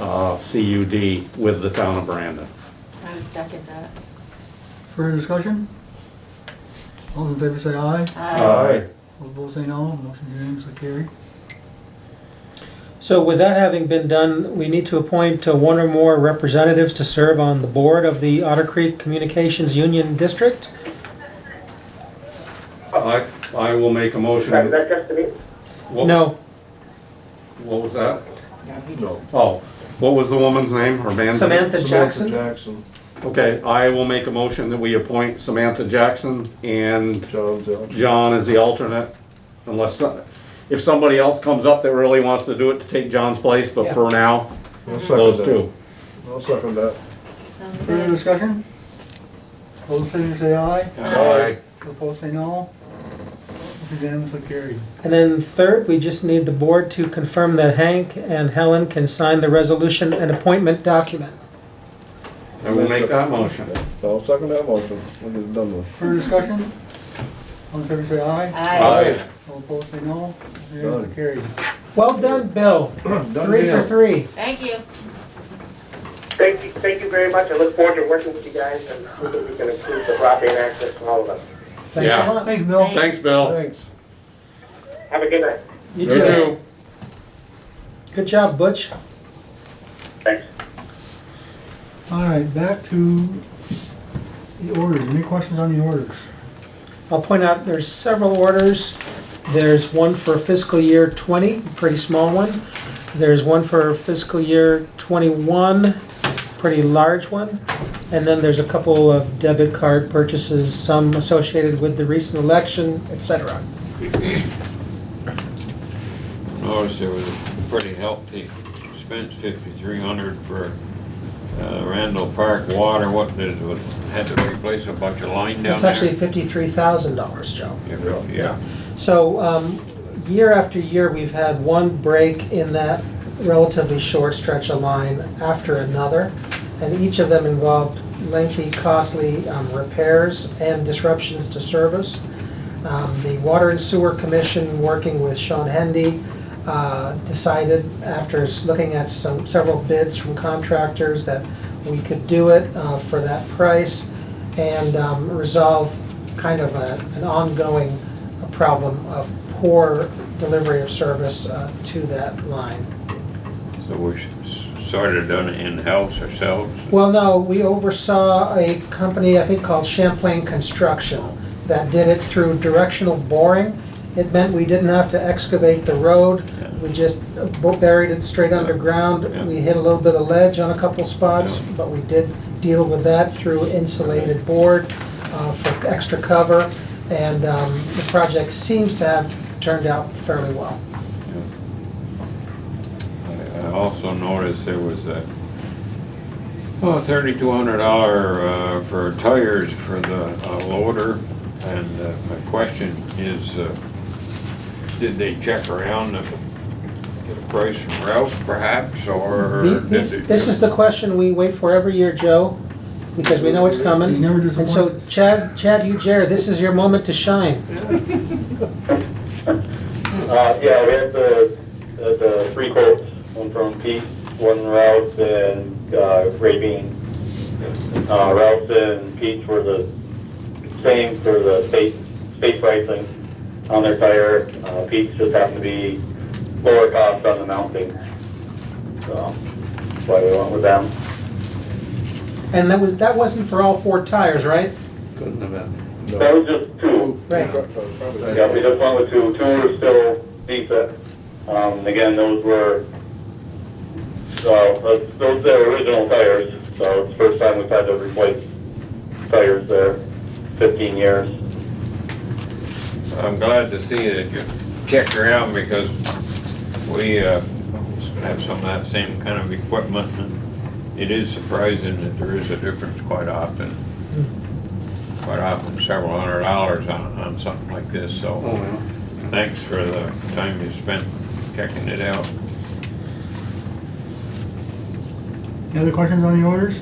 uh, CUD with the town of Brandon. I would second that. Further discussion? All those in favor say aye. Uh, Aye. All opposed say no. Motion unanimously carried. So with that having been done, we need to appoint uh, one or more representatives to serve on the board of the Otter Creek Communications Union District. I, I will make a motion. Is that just to me? What- No, What was that? No. Oh, what was the woman's name, her man's name? Samantha Jackson. Jackson, Okay, I will make a motion that we appoint Samantha Jackson and John Dell. John as the alternate, unless, some- if somebody else comes up that really wants to do it to take John's place, but for now, I'll second those that. two. I'll second that. Sounds Further good. discussion? All those in favor say aye. Aye. All opposed say no. Motion unanimously carried. And then third, we just need the board to confirm that Hank and Helen can sign the resolution and appointment document. I will make that motion. I'll second that motion, we'll get it done with. Further discussion? All in favor say aye. Aye. All opposed say no. Motion unanimously Done. carried. Well done, Bill. Done Three for deal. three. Thank you. Thank you, thank you very much. I look forward to working with you guys and hoping we can improve the broadband access for all of us. Thanks a Yeah. lot. Thanks, Bill. Thanks, Bill. Thanks. Have a good night. You You too. too. Good job, Butch. Thanks. All right, back to the orders. Any questions on the orders? I'll point out, there's several orders. There's one for fiscal year 20, pretty small one. There's one for fiscal year 21, pretty large one. And then there's a couple of debit card purchases, some associated with the recent election, et cetera. Notice there was a pretty healthy expense, fifty-three hundred for uh, Randall Park water, what, there's- was- had to replace a bunch of line down It's there? actually $53,000, Joe. Yeah, Yeah, So, um, year after year, we've had one break in that relatively short stretch of line after another, and each of them involved lengthy, costly um, repairs and disruptions to service. Um, The Water and Sewer Commission, working with Sean Hendy, uh, decided after s- looking at some, several bids from contractors that we could do it uh, for that price and um, resolve kind of a- an ongoing problem of poor delivery of service uh, to that line. so we s- sort of done it in-house ourselves. Well, no, we oversaw a company, I think called Champlain Construction, that did it through directional boring. It meant we didn't have to excavate the road, Yeah. we just bu- buried it straight Yeah. underground. We hit a little bit of ledge on a couple spots, Yeah. but we did deal with that through insulated board uh, for extra cover. And um, the project seems to have turned out fairly well. I I Uh, also noticed there was a, oh, thirty-two hundred dollar, uh, for tires for the uh, loader. And uh, my question is, uh, did they check around and get a price from Ralph perhaps, or? The- did This they- this is the question we wait for every year, Joe, because we know it's You coming. never And so disappoint. Chad, Chad, you, Jared, this is your moment to shine. Uh, yeah, we had the, the, the three quotes, one from Pete, one Ralph, and, uh, Ray Bean. Uh, Ralph and Pete were the same for the state, state pricing on their tire. Uh, Pete's just happened to be lower cost on the mounting. So, that's why we went with them. And that was, that wasn't for all four tires, right? Couldn't have been. No. That was just two. Right. Yeah, we just went with two. Two are still decent. Um, again, those were, uh, those- those are original tires, so it's the first time we've had to replace tires there, fifteen years. I'm glad to see that you checked around because we uh, have some of that same kind of equipment. and It is surprising that there is a difference quite often. Quite often several hundred dollars on, on something like this, Oh, so thanks for the time you spent checking it out. Any other questions on the orders?